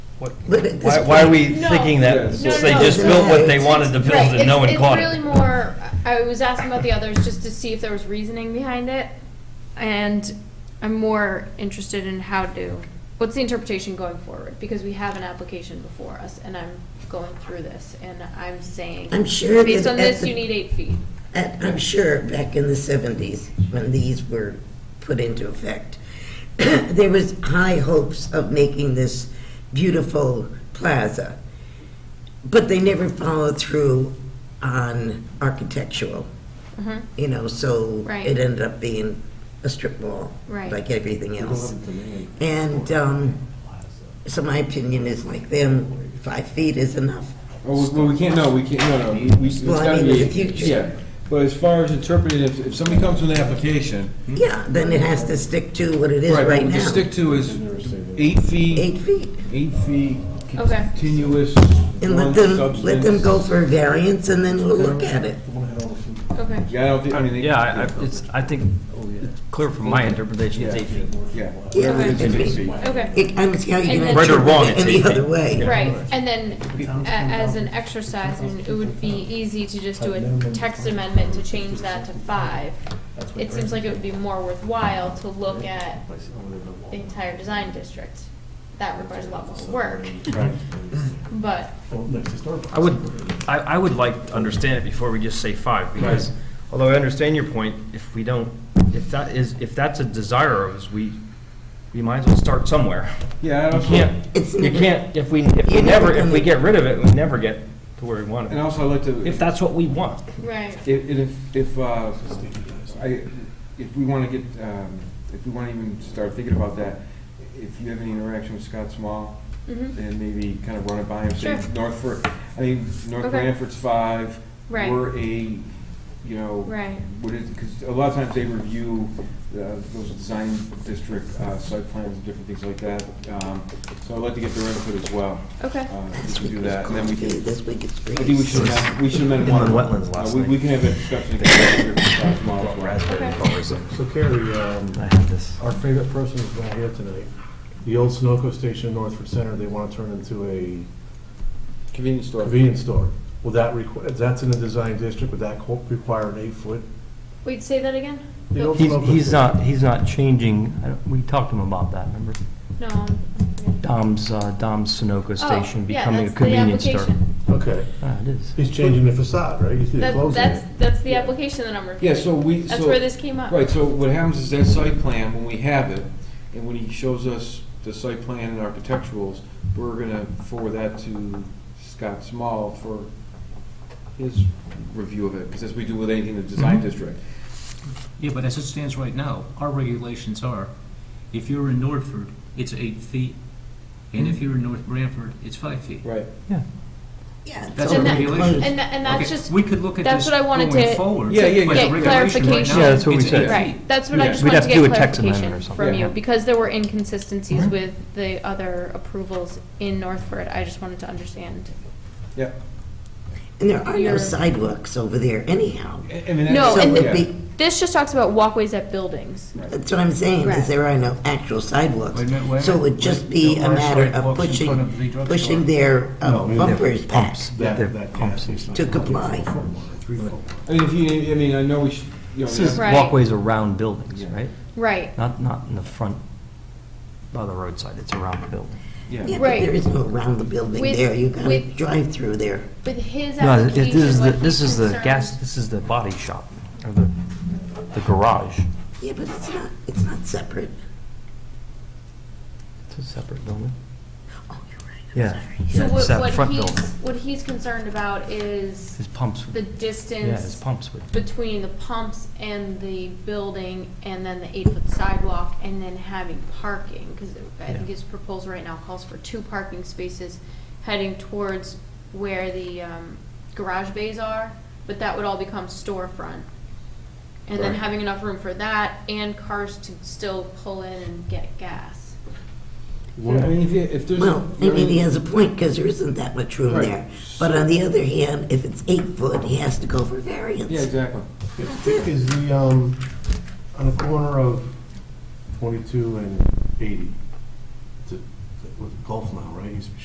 What- But at this Why, why are we No. thinking that No, no, they no. just built what they wanted to build Right, and no one it's, caught it's really it? more, I was asking about the others just to see if there was reasoning behind it. And I'm more interested in how to, what's the interpretation going forward? Because we have an application before us and I'm going through this and I'm saying, I'm sure based that on at this, the- you need eight feet. I- I'm sure back in the 70s, when these were put into effect, there was high hopes of making this beautiful plaza, but they never followed through on architectural, Mhm. you know, so Right. it ended up being a strip mall, Right. like everything We don't else. have a demand. And um, so my opinion is like them, five feet is enough. Oh, well, we can't, no, we can't, no, no, we, we- it's Well, I gotta mean, in be. the future. Yeah, but as far as interpreting, if, if somebody comes with an application. Yeah, then it has to stick to what it is right What we now, stick to is eight feet, eight feet. eight feet Okay. continuous. And let one them, let them substance. go for a variance and then we'll look at it. Okay. Yeah, I don't think, I mean. they- Yeah, I, I- it's, I think it's clear from my interpretation, it's eight feet. Yeah. Yeah, Okay. I mean, Okay. it- I don't see how you And can then- Right or interpret wrong, it it's any eight other feet. way. Right, and then a- as an exercise, and it would be easy to just do a text amendment to change that to five. It seems like it would be more worthwhile to look at the entire design district. That requires a lot more work, but, I would, I, I would like to understand it before we just say five, because although I understand your point, if we don't, if that is, if that's a desire of us, we, we might as well start somewhere. Yeah, I You also- can't, It's you never- can't, if we, if we You're never never, if gonna- we get rid of it, we never get to where we want and it, also I'd like to. if that's what we want. right. If, if, if, uh, I, if we wanna get, um, if we wanna even start thinking about that, if you have any interaction with Scott Small, Mhm. then maybe kind of run it by him, say, Sure. Northford, I mean, North Okay. Branford's five. Right. We're eight, you know. Right. What is, because a lot of times they review, uh, those design district, uh, site plans and different things like that, um, so I'd like to get their input as well. Okay. Uh, This if we week can do was that, and then we coffee, can this week it's grapes. I think we should have, we should amend one. Inland wetlands last Uh, we- night. We can have a discussion again after, uh, tomorrow as well. Okay. So Carrie, um, I have this. our favorite person is not here tonight. The old Sunoco station in Northford Center, they want to turn into a Convenience store. convenience store. Will that require, that's in the design district, would that co- require an eight-foot? Wait, say that again? The old He's, Sunoco he's station- not, he's not changing, I don't- we talked to him about that, remember? No. I'm- I'm- Dom's, uh, Dom's Sunoco station Oh, yeah, becoming a that's the convenience store. application. Okay, Ah, it is. he's changing the facade, right? He's That- closing That's, it. that's the application that I'm Yeah, reviewing. so we, so. That's where this came up. Right, so what happens is that site plan, when we have it, and when he shows us the site plan and architecturals, we're gonna forward that to Scott Small for his review of it, because as we do with anything in the Mm-hmm. design district. Yeah, but as it stands right now, our regulations are, if you're in Northford, it's eight feet, and if you're in North Branford, it's five feet. Right. Yeah. Yeah, it's That's all our And that- regulation. And, tha- and that's Okay, just. We could look at that's this what I wanted going to- forward. Yeah, yeah, but yeah. the Get regulation right clarification. now, Yeah, that's what we it's said. eight feet. Right, that's what I Yeah. just We'd wanted have to to do get a text amendment clarification or something. Mm-hmm. from you, Yeah. because there were inconsistencies with the other approvals in Northford, I just wanted to understand. Yeah. And there are no You're- sidewalks over there anyhow. I- I mean, that's- No, So and it'd yeah. be, This just talks about walkways at buildings. that's what I'm saying, Right. is there are no actual sidewalks. Wait a minute, wait a So it would minute. just be There a are matter of sidewalks in front pushing, of the drugstore. pushing their uh, No, I mean, they're bumpers back. Pumps, That, they're that gas pumps. station. To comply. Three-foot. I mean, if you, I mean, I know we should, you know. This is yeah. Right. walkways around buildings, Yeah. right? Right, Not, not in the front, by the roadside, it's around the building. Yeah, but Right. there is no around the building With- there, you gotta with- drive through there. with his No, it- application, this is, the what this is he's the concerned- gas, this is the body shop, or the, the garage. Yeah, but it's not, it's not separate. It's a separate building. Oh, you're right, I'm Yeah. sorry. So It's that what, what front building. he's, what he's concerned about is His pumps, the would- yeah, his distance pumps would, between the pumps and the building, and then the eight-foot sidewalk, and then having parking, because I think Yeah. his proposal right now calls for two parking spaces heading towards where the um, garage bays are, but that would all become storefront. And then Right. having enough room for that and cars to still pull in and get gas. Yeah, I mean, if you- if there's. Well, I mean, he has a point, because there isn't that much room Right. there. But on the other hand, if it's eight foot, he has to go for variance. Yeah, exactly. Is the, um, on the corner of 22 and 80, it's a- it's a- with Gulf now, right? Used to be